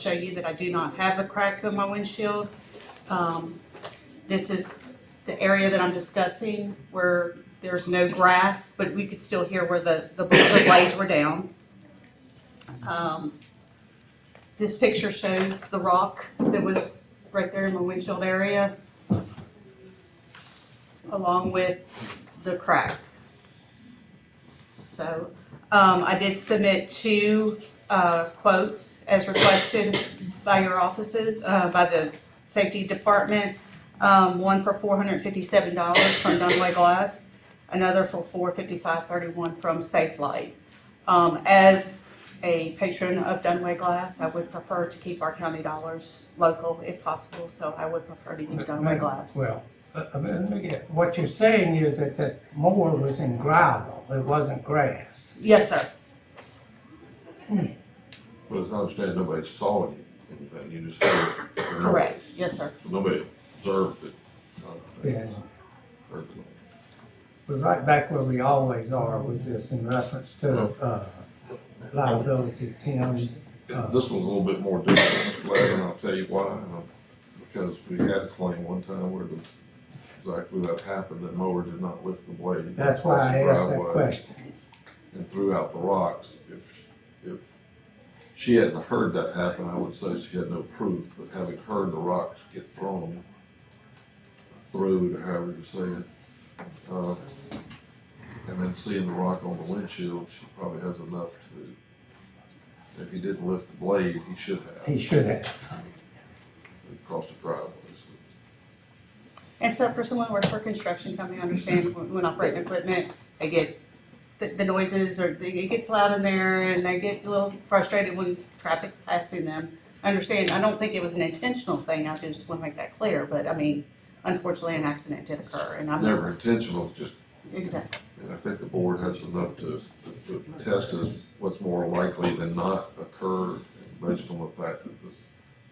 show you that I do not have a crack in my windshield. Um, This is the area that I'm discussing where there's no grass, but we could still hear where the, the the blades were down. Um, This picture shows the rock that was right there in my windshield area along with the crack. So, um, I did submit two uh, quotes as requested by your offices, uh, by the safety department. Um, one for four hundred and fifty-seven dollars from Dunway Glass, another for $455.31 from Safe Light. Um, as a patron of Dunway Glass, I would prefer to keep our county dollars local if possible, so I would prefer to use Dunway Glass. Well, uh, uh, let me get- what you're saying is that that mower was in gravel, it wasn't grass. Yes, sir. But as I understand, nobody saw any- anything, you just heard. it. Correct. Yes, sir. Nobody observed it. uh, Yes. heard it. We're right back where we always are with this in reference to uh, liability, Tim. Yeah, This one's a little bit more difficult, Larry, and I'll tell you why. uh, Because we had a claim one time where the, exactly that happened, that mower did not lift the blade. That's why I asked that Driveway question. And threw out the rocks. If, if she hadn't heard that happen, I would say she had no proof, but having heard the rocks get thrown through, to however you say it, uh, and then seeing the rock on the windshield, she probably has enough to, if he didn't lift the blade, he should have. He should have. Across the driveway. Except for someone who works for a construction company, I understand when when operating equipment, they get the, the noises or they- it gets loud in there and they get a little frustrated when traffic's passing them. I understand, I don't think it was an intentional thing, I just want to make that clear, but I mean, unfortunately, an accident did occur and I'm. Never intentional, just, Exactly, and I think the board has enough to, to test as what's more likely than not occur based on the fact that this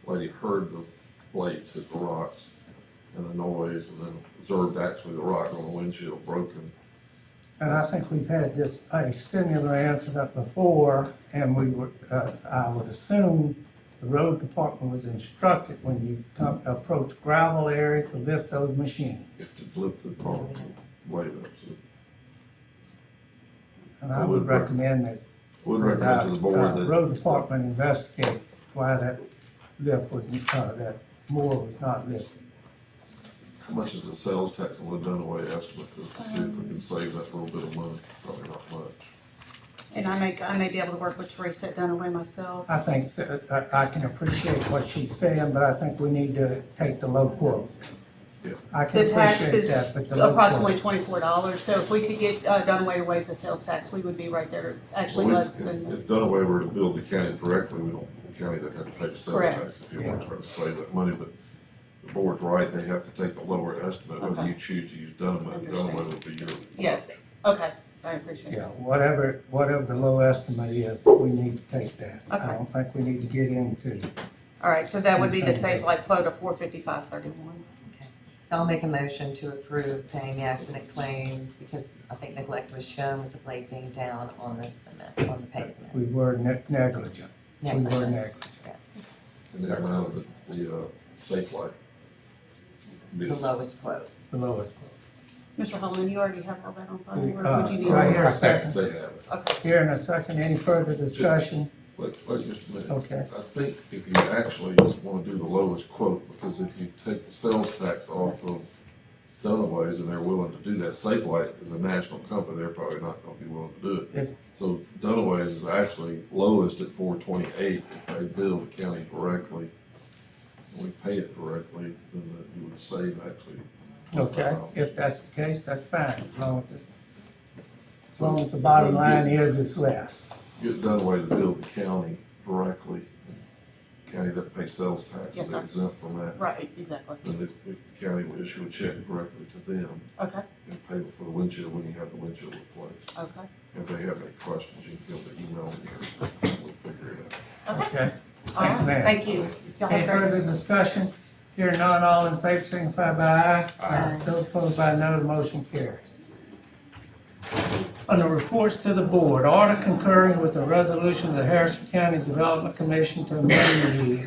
lady heard the blades hit the rocks and the noise and then observed actually the rock on the windshield broken. And I think we've had this, a similar incident before, and we were, uh, I would assume the road department was instructed when you come, approach gravel area to lift those machines. If to lift the car, blade up. So And I would recommend that Would recommend to the board Uh, that. Road department investigate why that lift was, uh, that mower was not lifted. How much is the sales tax on the Dunaway estimate? 'Cause to see if we can save that little bit of money, probably not much. and I may, I may be able to work with Teresa Dunaway myself. I think that, I, I can appreciate what she's saying, but I think we need to take the low quote. Yeah. I The can tax appreciate is that, but the low approximately quote. twenty-four dollars, so if we could get, uh, Dunaway to waive the sales tax, we would be right there, actually Well, less if- than, If Dunaway were to build the county correctly, we don't, the county doesn't have to pay the sales Correct. tax if you want to try to save that money, but the board's right, they have to take the lower estimate, whether Okay. you choose to use Dunaway, Understand. Dunaway would be your Yeah. option. okay, I appreciate it. Yeah, whatever, whatever the low estimate is, we need to take that. Okay. I don't think we need to get into, All right, so that would be the safe life quote of four fifty-five thirty-one. So I'll make a motion to approve paying the accident claim because I think neglect was shown with the blade being down on the cement, on the pavement. we were ne- negligent. We were Negligence, negligent. yes. And that amount of the, the, uh, safe life. The lowest quote. The lowest quote. Mr. Holman, you already have all that on file, or Uh, would you need? do I hear a second? They have it. Okay, Here in a second, any further discussion? Wait, wait just a minute. Okay. I think if you actually wanna do the lowest quote, because if you take the sales tax off of Dunaway's and they're willing to do that, Safelight is a national company, they're probably not gonna be willing to do Yes. it. So Dunaway's is actually lowest at four twenty-eight, if they bill the county correctly, and we pay it correctly, then that you would save actually. Okay, $25. if that's the case, that's fine, as long as, it's- as long as the bottom line is it's less. Get Dunaway to bill the county directly, county that pays sales tax, Yes, is sir. exempt from that. right, exactly, then the the county will issue a check directly to them okay, and payment for the windshield when you have the windshield replaced. okay, If they have any questions, you can give them an email and we'll figure it out. okay. All Okay, right, Thanks, ma'am. thank you. Y'all any have a further great. discussion? Here none, all in favor, signify by aye. Aye. Those opposed by no, the motion carries. on the reports to the board, order concurring with the resolution of the Harrison County Development Commission to amend the